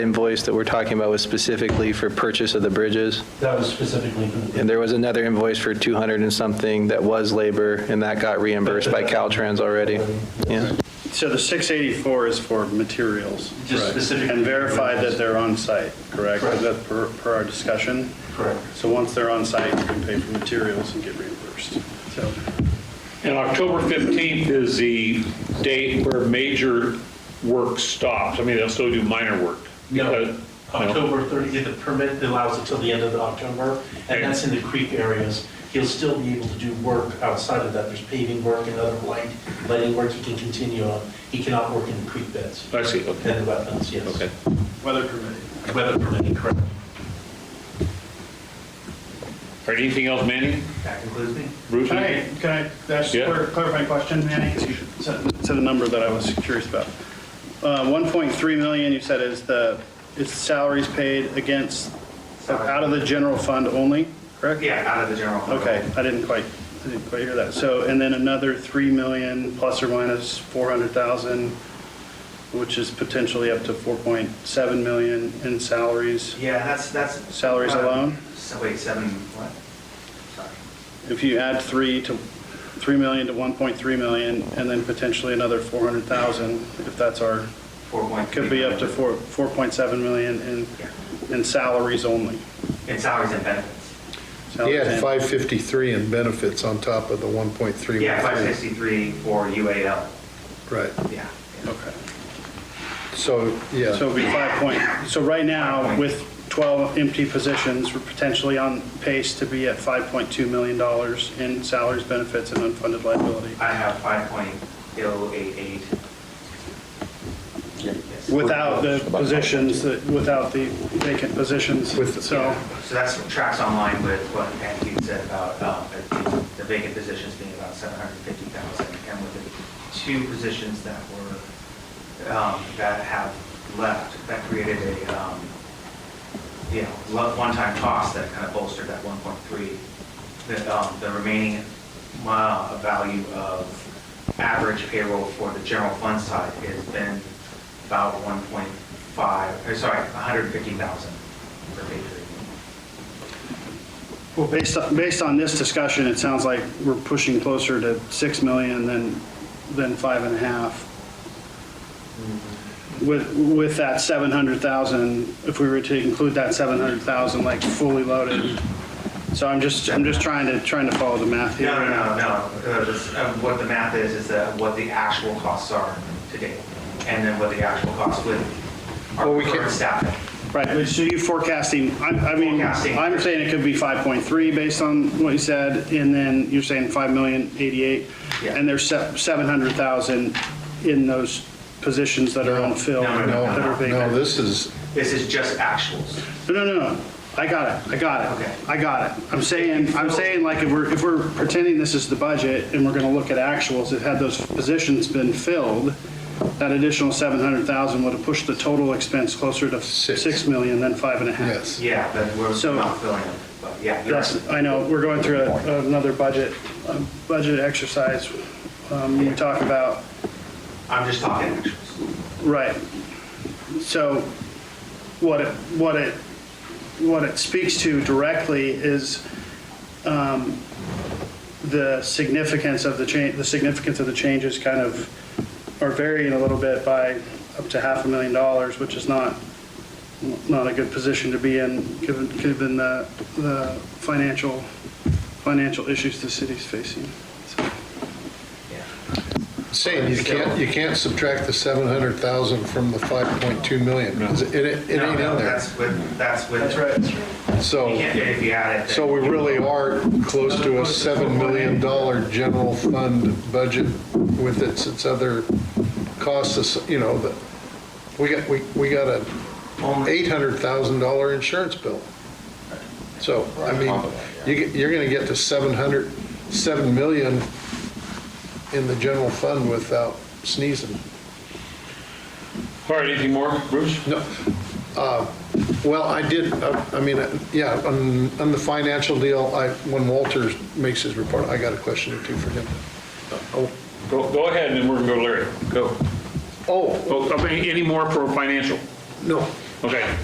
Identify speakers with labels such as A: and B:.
A: Invoice that we're talking about was specifically for purchase of the bridges,
B: That was specifically for the.
A: and there was another invoice for 200 and something that was labor, and that got reimbursed by Caltrans already. Yeah,
C: So the 684 is for materials.
B: Just Right. specifically-
C: And verify that they're on-site, correct?
B: Correct.
C: That Per per our discussion?
B: Correct.
C: So once they're on-site, you can pay for materials and get reimbursed. So
D: And October 15th is the date where major work stops. I mean, they'll still do minor work. Uh,
B: No,
D: Because-
B: October 30th, the permit allows until the end of October, and that's in the creek areas. He'll still be able to do work outside of that. There's paving work and other light, lighting work he can continue on. He cannot work in the creek beds
D: I see, okay,
B: and the wetlands, yes.
D: okay.
C: weather permitting.
B: Weather permitting, correct.
D: All right, anything else, Manny?
B: That includes me.
D: Bruce?
C: Can I, can I, that's
D: Yeah.
C: a clarifying question, Manny, 'cause you said said a number that I was curious about. Uh, 1.3 million, you said, is the, is salaries paid against, out of the general fund only, correct?
E: Yeah, out of the general. fund.
C: Okay, I didn't quite, I didn't quite hear that. So, and then another 3 million plus or minus 400,000, which is potentially up to 4.7 million in salaries.
E: Yeah, that's, that's.
C: Salaries
E: uh,
C: alone?
E: so Wait, seven, what? Sorry.
C: If you add 3 to, 3 million to 1.3 million, and then potentially another 400,000, if that's our,
E: Four point.
C: could be up to 4, 4.7 million in, in salaries only.
E: In salaries and benefits.
F: He
C: Salaries
F: had
C: and-
F: 553 in benefits on top of the 1.3.
E: Yeah, five sixty-three for UAL,
F: Right,
E: yeah.
C: Okay.
F: so, yeah.
C: So it'd be five point, so right now, with 12 empty positions, we're potentially on pace to be at $5.2 million in salaries, benefits, and unfunded liability,
E: I have five point oh eight eight.
C: without the positions, that without the vacant positions,
F: With-
C: so,
E: So that's tracks online with what Matthew said about um, the- the vacant positions being about 750,000, and with the two positions that were, um, that have left, that created a, um, you know, lo- one-time cost that kind of bolstered that 1.3, the, um, the remaining mile of value of average payroll for the general fund side has been about 1.5, or uh, sorry, 150,000 per pay period.
C: well, based on, based on this discussion, it sounds like we're pushing closer to 6 million than, than five and a half. With, with that 700,000, if we were to include that 700,000, like fully loaded. So I'm just, I'm just trying to, trying to follow the math here.
E: No, no, no, no. Uh, this- uh, What the math is, is that what the actual costs are today, and then what the actual costs with our
F: Well, we can-
E: current staffing.
C: Right, but so you're forecasting, I I mean,
E: Forecasting.
C: I'm saying it could be 5.3 based on what you said, and then you're saying 5 million 88,
E: Yeah.
C: and there's se- 700,000 in those positions that are unfilled.
E: No,
F: No,
C: that are
F: no,
C: vacant.
F: this is,
E: This is just actuals.
C: No, no, no, no, I got it, I got it,
E: Okay.
C: I got it. I'm saying, I'm saying like if we're, if we're pretending this is the budget and we're gonna look at actuals, if had those positions been filled, that additional 700,000 would have pushed the total expense closer to
F: Six.
C: 6 million than five and a half.
F: yes.
E: Yeah, but we're
C: So-
E: not filling them, but yeah. you're
C: Yes,
E: right.
C: I know, we're going through a- another budget, um, budget exercise. Um, We talk about,
E: I'm just talking actuals.
C: right. So what it, what it, what it speaks to directly is um, the significance of the change, the significance of the changes kind of are varying a little bit by up to half a million dollars, which is not, not a good position to be in, given, given the, the financial, financial issues the city's facing. So-
F: Saying you can't, you can't subtract the 700,0and from the 5.2 million. 'cause It, it it
E: No,
F: ain't
E: no,
F: in there.
E: That's with, that's with. That's right. You
F: So,
E: can't, if you add it. then-
F: so we really are close to a $7 million general fund budget with its, its other costs, you know, that, we got, we, we got a
E: Only-
F: $800,000 insurance bill. So, I mean, you, get- you're going to get to 700, 7 million in the general fund without sneezing.
D: All right, anything more, Bruce?
F: No, uh, well, I did, uh, I mean, uh, yeah, on, on the financial deal, I, when Walter makes his report, I got a question or two for him. Oh,
D: Go go ahead, and then we're going to go to Larry. Go.
F: Oh,
D: Oh, I mean, Any more for financial?
F: no,
D: Okay.